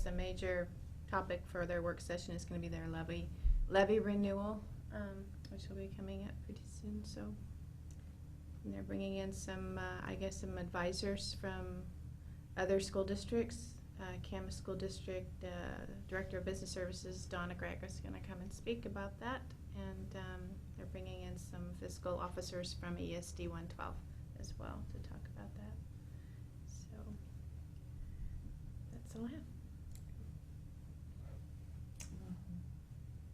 the major topic for their work session is gonna be their levy, levy renewal, um, which will be coming up pretty soon, so. And they're bringing in some, uh, I guess, some advisors from other school districts. Uh, Camas School District, uh, Director of Business Services, Donna Gregg is gonna come and speak about that. And, um, they're bringing in some fiscal officers from ESD one twelve as well to talk about that. So, that's all I have.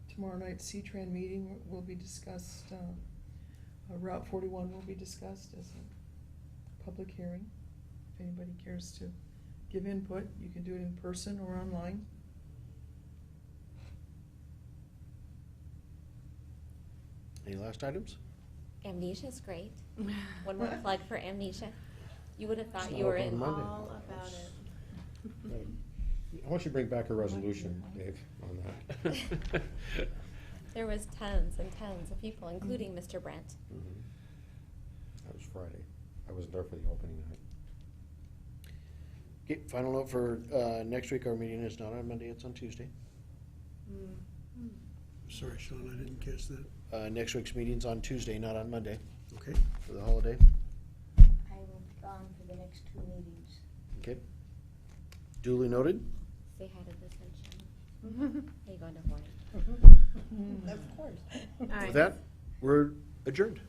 Tomorrow night's C-Tran meeting will be discussed, uh, uh, Route forty-one will be discussed as a public hearing. If anybody cares to give input, you can do it in person or online. Any last items? Amnesia's great. One more plug for amnesia. You would have thought It's you not were open in. Monday. All about it. I want you to bring back a resolution, Dave, on that. There was tons and tons of people, including Mr. Brent. Mhm. That was Friday. I was there for the opening night. Okay, final note for, uh, next week, our meeting is not on Monday, it's on Tuesday. Mm. Sorry, Sean, I didn't catch that. Uh, next week's meeting's on Tuesday, not on Monday, Okay. for the holiday. I will be gone for the next two meetings. Okay. Duly noted. Say hi to the sunshine. Are you going to Hawaii? Of course. All right. With that, we're adjourned.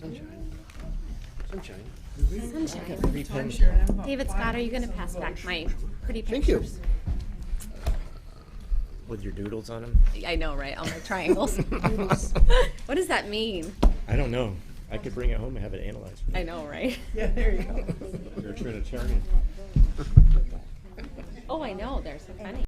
Sunshine. Sunshine. Sunshine. Three pens. David Scott, are you going to pass back my pretty Thank you. pictures? with your doodles on them? I know, right? All my triangles. what does that mean? I don't know. I could bring it home and have it analyzed. I know, right? Yeah, there you go. You're a Trinitarian. Oh, I know. They're so funny.